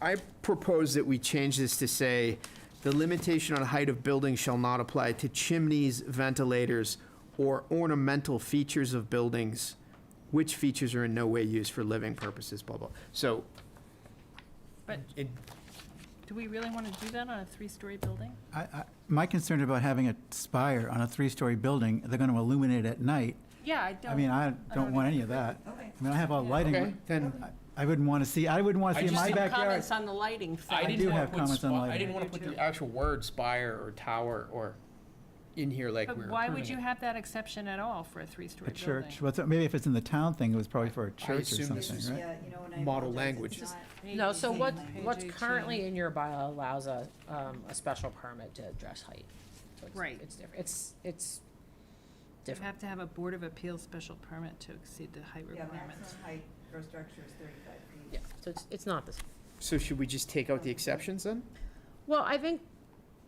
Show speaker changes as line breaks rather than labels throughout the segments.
I propose that we change this to say, the limitation on height of buildings shall not apply to chimneys, ventilators, or ornamental features of buildings, which features are in no way used for living purposes, blah, blah. So.
But-
It-
Do we really want to do that on a three-story building?
I, I, my concern about having a spire on a three-story building, they're gonna illuminate it at night.
Yeah, I don't.
I mean, I
don't
don't want any of that.
Okay.
I mean, I have all
Yeah.
Okay,
lighting.
then,
I- I wouldn't wanna see, I wouldn't wanna
I
see in
just
my
didn't
backyard.
Comments on the lighting
I
thing.
do
didn't want
have
to put
comments on
spa- I
lighting.
didn't want
I
to put
do
the
too.
actual word spire or tower or in here like we
But
were
why would you
approving it.
have that exception at all for a three-story
A
building?
church, what's, maybe if it's in the town thing, it was probably for a church or
assume this
something,
was-
right?
Yeah, you know, and I
Model
apologize,
language.
it's not-
No, so
Page
what,
eighteen.
what's currently in your bylaw allows a, um, a special permit to address height. So it's-
Right.
It's different, it's, it's
You
different.
have to have a Board of Appeals special permit to exceed the height
Yeah,
requirements.
maximum height for structure is thirty-five feet.
Yeah, so it's, it's not this,
so should we just take out the exceptions then?
well, I think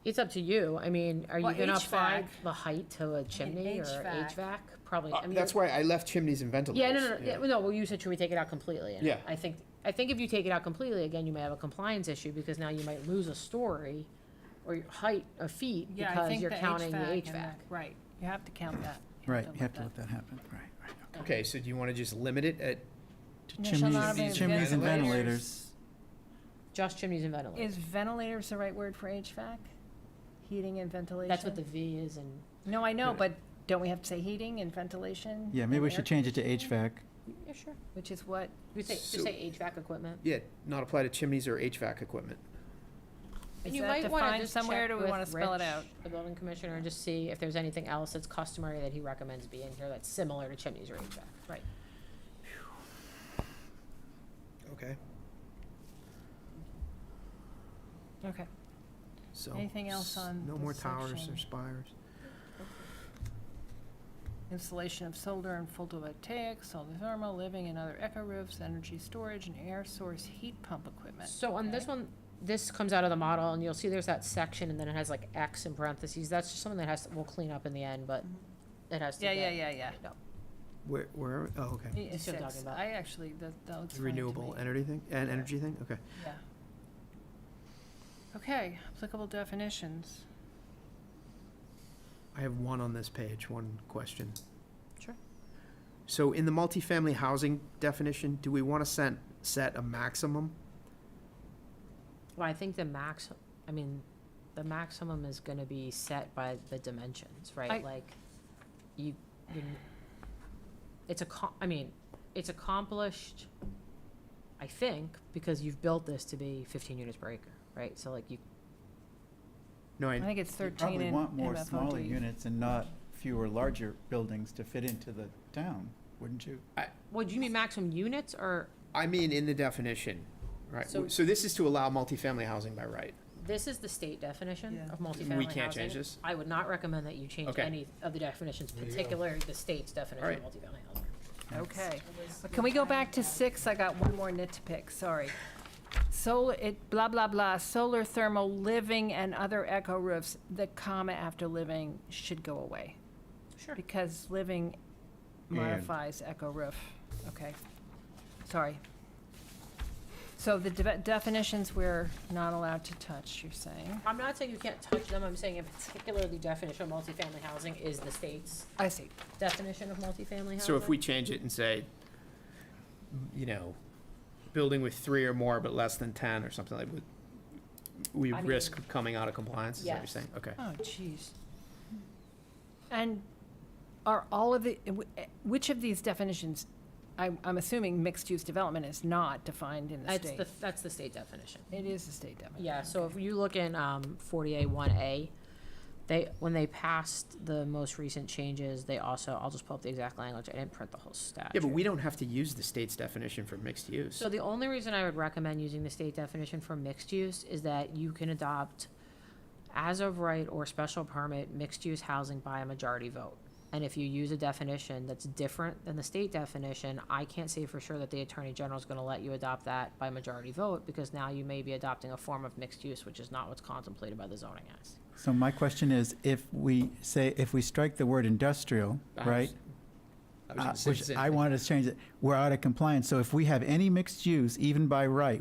it's up to you, I mean, are you
Well,
gonna apply
HVAC.
the height to a chimney or
HVAC.
HVAC? Probably,
Uh,
I mean.
That's why I left chimneys and ventilators.
Yeah, no, no, no, yeah, no, well, you said should we take it out completely? and
Yeah.
I think, I think if you take it out completely, again, you may have a compliance issue, because now you might lose a story or your height of feet,
Yeah, I
because
think
you're
the
counting the
HVAC. and
HVAC.
the- Right, you have to count that.
Right, you have to let that happen, right, right.
Okay, so do you want to just limit it at
No,
Chimneys,
shall not have
chimneys and
ventilators.
ventilators.
Just chimneys and ventilators,
Is ventilators the right word for HVAC? Heating and ventilation?
that's what the V is in
No, I know, but don't we have to say heating and ventilation?
Yeah, maybe we
and air-
should change it to HVAC.
Yeah, sure.
Which is what,
You say, just
So-
say HVAC equipment.
Yeah, not apply to chimneys or HVAC equipment.
is
You
that
might wanna
defined
just
somewhere, or
check
do we
with
want to spell it
Rich,
out?
The building commissioner, and just see if there's anything else that's customary that he recommends be in here that's similar to chimneys or HVAC.
Right.
Okay.
Okay.
So.
Anything else
s-
on
No
this
more towers
section?
or spires.
Installation of solar and photovoltaic, solar thermal, living and other eco roofs, energy storage, and air source heat pump equipment.
So on this one, this comes out of the model, and you'll see there's that section, and then it has like X in parentheses, that's just something that has, to we'll clean up in the end, but it has to
Yeah,
get.
yeah, yeah, yeah.
Where, where, oh, okay.
Yeah,
That's what I'm
six.
talking about.
I actually, that, that looks fine to
Renewable
me.
energy thing, and energy thing, okay.
Yeah. Okay, applicable definitions.
I have one on this page, one question.
Sure.
So in the multifamily housing definition, do we want to set, set a maximum?
Well, I think the max, I mean, the maximum is gonna be set by the dimensions,
I-
right? Like, you, you n- it's a co- I mean, it's accomplished, I think, because you've built this to be fifteen units per acre, right? So like you,
No,
I
I,
think it's
You
thirteen
Probably
in
want more smaller
MFOD.
units and not fewer larger buildings to fit into the town, wouldn't you?
well, do you mean maximum units or,
I mean in the definition, right?
So-
So this is to allow multifamily housing by right.
this is the state definition
Yeah.
of multifamily housing?
We can't change this?
I would not recommend that you change
Okay.
any of the definitions,
you go.
particularly the state's definition of multifamily housing.
Okay. Can we go back to six? I got one more nit to pick, sorry. Solar, it, blah, blah, blah, solar thermal, living and other eco roofs, the comma after living should go away.
Sure.
Because living modifies echo roof, okay, sorry. So the de- definitions we're not allowed to touch, you're saying?
I'm not saying you can't touch them, I'm saying in particular, the definition of multifamily housing is the state's
I see.
definition of multifamily housing.
So if we change it and say, you know, building with three or more but less than ten or something like, would- we
I
risk coming out of compliance, is that what you're
Yes.
saying? Okay.
Oh, jeez. And are all of the, which of these definitions, I'm, I'm assuming mixed-use development is not defined in the
That's
state?
the, that's the state definition.
It is a state definition.
Yeah, so if you look in, um, forty A one A, they, when they passed the most recent changes, they also, I'll just pull up the exact language, I didn't print the whole statute.
Yeah, but we don't have to use the state's definition for mixed use.
So the only reason I would recommend using the state definition for mixed use is that you can adopt as of right or special permit mixed use housing by a majority vote. And if you use a definition that's different than the state definition, I can't say for sure that the attorney general is gonna let you adopt that by majority vote because now you may be adopting a form of mixed use, which is not what's contemplated by the zoning act.
So my question is, if we say, if we strike the word industrial,
I was-
right?
I was
uh,
gonna say the
Which
same
I
thing.
wanted to change it, we're out of compliance. So if we have any mixed use, even by right,